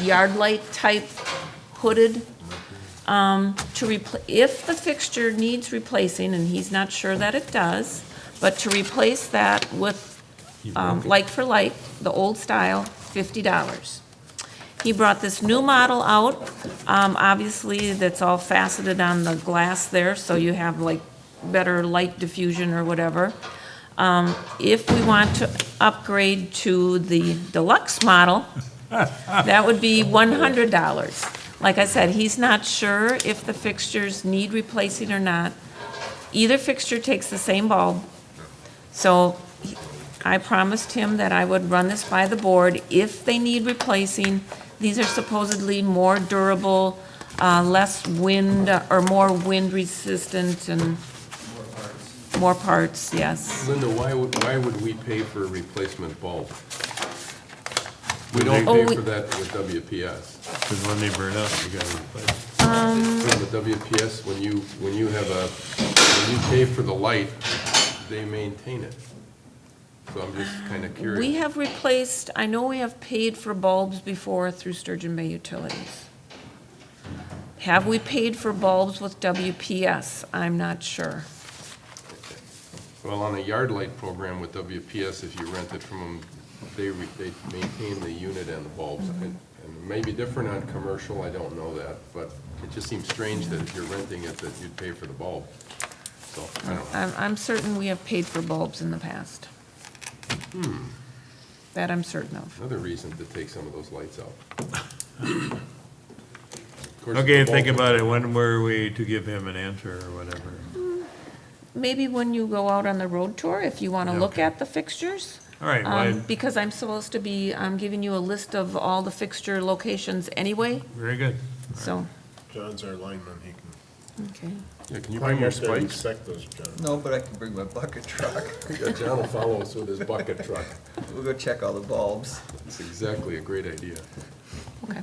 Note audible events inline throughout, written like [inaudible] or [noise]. yard light type hooded, um, to repl, if the fixture needs replacing, and he's not sure that it does, but to replace that with, um, like for like, the old style, fifty dollars. He brought this new model out. Um, obviously, that's all faceted on the glass there, so you have like better light diffusion or whatever. Um, if we want to upgrade to the deluxe model, that would be one hundred dollars. Like I said, he's not sure if the fixtures need replacing or not. Either fixture takes the same bulb. So he- I promised him that I would run this by the board if they need replacing. These are supposedly more durable, uh, less wind, uh, or more wind resistant and more parts, yes. Linda, why would, why would we pay for a replacement bulb? We don't Oh, pay we- for that with WPS. Because when they burn out, you gotta replace. it. Um. With the WPS, when you, when you have a, when you pay for the light, they maintain it. So I'm just kind of curious. We have replaced, I know we have paid for bulbs before through Sturgeon Bay Utilities. Have we paid for bulbs with WPS? I'm not sure. Well, on a yard light program with WPS, if you rent it from them, they, re- they maintain the unit and the bulbs. And and it may be different on commercial, I don't know that, but it just seems strange that if you're renting it, that you'd pay for the bulb. So, I don't know. I'm, I'm certain we have paid for bulbs in the past. That I'm certain of. Another reason to take some of those lights out. Of course, Okay, the think bulb- about it, when were we to give him an answer or whatever? Maybe when you go out on the road tour, if you want to look Okay. at the fixtures. All right, um, why, Because I'm supposed to be, I'm giving you a list of all the fixture locations anyway, very good. so, John's our lineman, he can. okay. Yeah, can you bring your spikes? Dissect those, John. No, but I can bring my bucket truck. [laughs] Yeah, John will follow us with his bucket truck. We'll go check all the bulbs. It's exactly a great idea. Okay,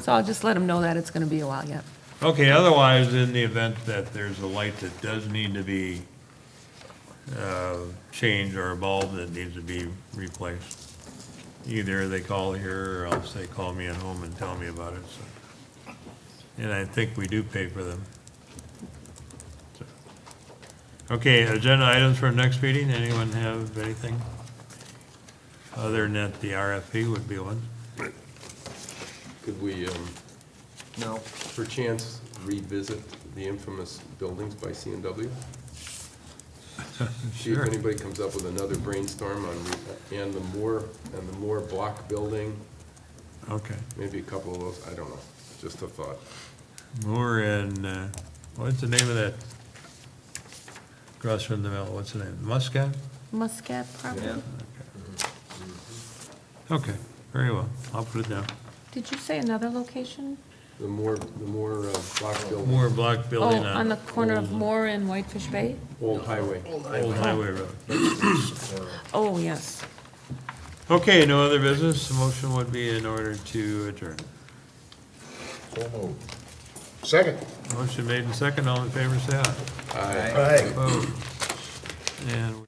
so I'll just let them know that it's gonna be a while yet. Okay, otherwise, in the event that there's a light that does need to be, uh, changed or a bulb that needs to be replaced, either they call here or else they call me at home and tell me about it, so. And I think we do pay for them. So. Okay, agenda items for next meeting, anyone have anything? Other than that, the RFP would be one. Could we, um, No, perchance revisit the infamous buildings by CNW? See if Sure. anybody comes up with another brainstorm on, re- and the Moore, and the Moore Block Building, Okay. maybe a couple of those, I don't know, just a thought. Moore and, uh, what's the name of that? Across from the mill, what's the name? Muscat? Muscat property? yeah. Okay, very well. I'll put it down. Did you say another location? The Moore, the Moore uh, Block Building, Moore Block Oh, Building on the on corner of Moore and Whitefish Bay? Old Highway. Old Highway Road. Oh, yes. Okay, no other business. The motion would be in order to adjourn. Second. Motion made and second. All in favor, say aye. Aye. Opposed? And.